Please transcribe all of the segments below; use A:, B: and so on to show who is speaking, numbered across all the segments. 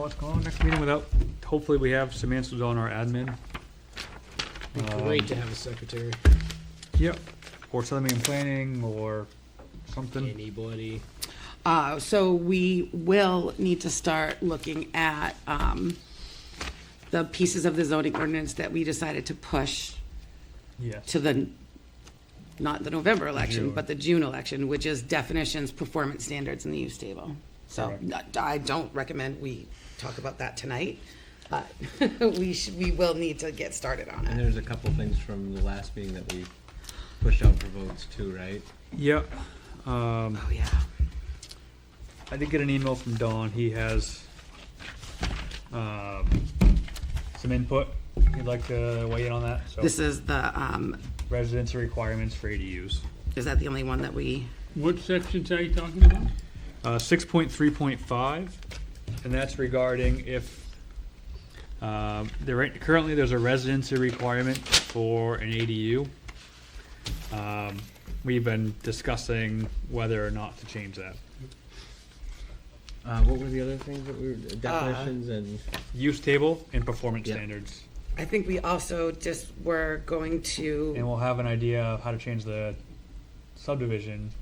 A: what's going on next meeting without, hopefully we have some answers on our admin.
B: Be great to have a secretary,
A: Yep. Or Southern Planning or something.
B: anybody.
C: Uh, so we will need to start looking at, um, the pieces of the zoning ordinance that we decided to push
A: Yes.
C: to the, not the November election, but the June election, which is definitions, performance standards, and the use table. So
A: Correct.
C: I don't recommend we talk about that tonight, but we should, we will need to get started on
D: And
C: it.
D: there's a couple things from the last meeting that we pushed out for votes too, right?
A: Yep. Um,
C: Oh, yeah.
A: I did get an email from Don. He has um, some input. He'd like to weigh in on that.
C: This
A: So
C: is the, um,
A: residence requirements for ADUs.
C: is that the only one that we,
E: What sections are you talking about?
A: Uh, six point three point five, and that's regarding if, um, there, ain't- currently there's a residency requirement for an ADU. Um, We've been discussing whether or not to change that.
D: Uh, what were the other things that we were, definitions and?
A: Use table and performance
D: Yeah.
A: standards,
C: I think we also just were going
A: and
C: to,
A: we'll have an idea of how to change the subdivision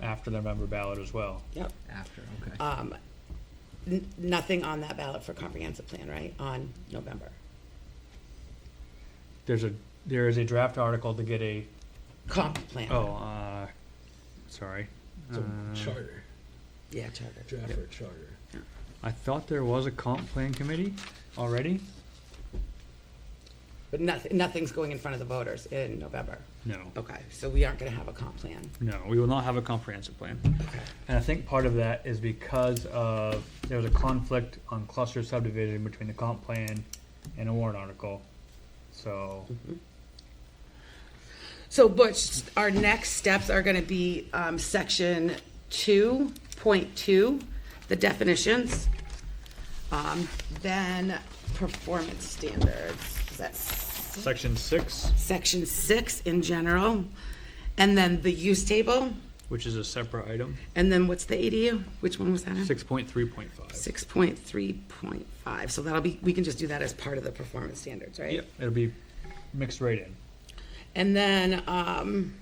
A: after the November ballot as well.
C: yep,
D: After, okay.
C: um, n- nothing on that ballot for comprehensive plan, right, on November?
A: There's a, there is a draft article to get a,
C: Comp plan.
A: oh, uh, sorry. Uh,
B: charter,
C: Yeah, charter.
B: draft for a charter.
A: I thought there was a comp plan committee already?
C: But nothing, nothing's going in front of the voters in November.
A: No,
C: Okay, so we aren't gonna have a comp plan.
A: no, we will not have a comprehensive plan.
C: Okay.
A: And I think part of that is because of, there was a conflict on cluster subdivision between the comp plan and a warrant article. So,
C: Mm-hmm. So Butch, our next steps are gonna be, um, section two, point two, the definitions. Um, then performance standards, is that s-
A: section six,
C: section six in general? And then the use table,
A: which is a separate item,
C: and then what's the ADU? Which one was that in?
A: six point three point five.
C: Six point three point five, so that'll be, we can just do that as part of the performance standards, right?
A: Yep, it'll be mixed right in.
C: And then, um,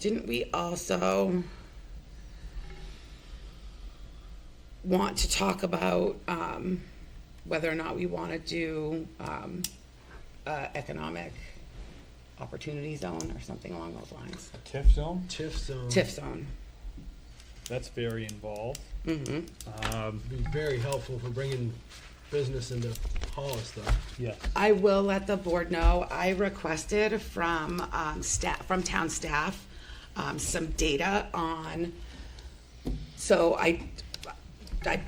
C: didn't we also want to talk about, um, whether or not we want to do, um, uh, economic opportunity zone or something along those lines?
A: TIF zone?
B: TIF zone
A: Mm-hmm.
C: TIF zone.
A: That's very involved.
C: Mm-hmm.
A: Um,
B: would be very helpful for bringing business into Hollis though.
A: yeah,
C: I will let the board know. I requested from um, staff, from town staff, um, some data on, so I, I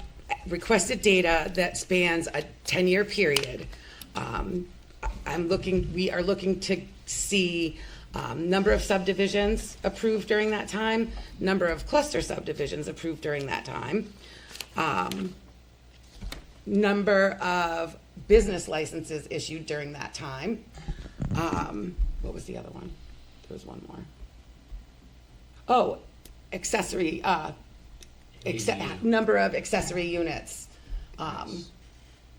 C: requested data that spans a 10-year period. Um, I- I'm looking, we are looking to see um, number of subdivisions approved during that time, number of cluster subdivisions approved during that time, um, number of business licenses issued during that time. Um, what was the other one? There was one more. Oh, accessory, uh, acce- number of accessory units, um,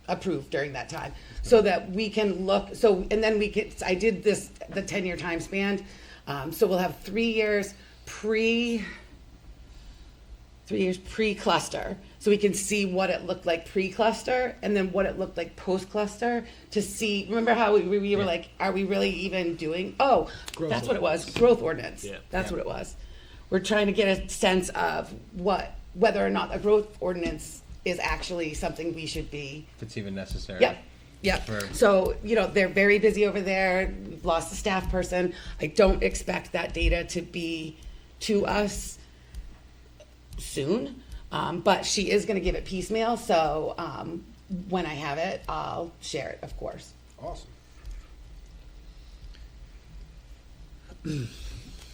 C: approved during that time. So that we can look, so, and then we can, I did this, the ten-year time span. Um, so we'll have three years pre, three years pre-cluster so we can see what it looked like pre-cluster and then what it looked like post-cluster to see remember how we, we were like are we really even doing oh
B: Growth
C: that's what it was growth ordinance
B: Yeah.
C: that's what it was we're trying to get a sense of what whether or not a growth ordinance is actually something we should be
D: If it's even necessary.
C: Yep, yep.
D: For-
C: So, you know, they're very busy over there. We've lost a staff person. I don't expect that data to be to us soon. Um, but she is gonna give it piecemeal, so, um, when I have it, I'll share it, of course.
B: Awesome.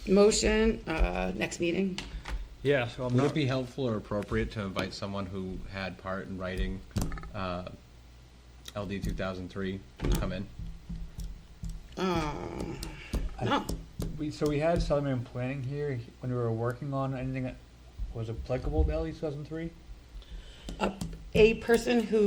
C: Motion, uh, next meeting?
A: yeah, so I'm
D: Would it
A: not,
D: be helpful or appropriate to invite someone who had part in writing, uh, LD two thousand three to come in?
C: Um, no,
A: we, so we had Southern Planning here E when we were working on anything that was applicable to LE two thousand three?
C: up, a person who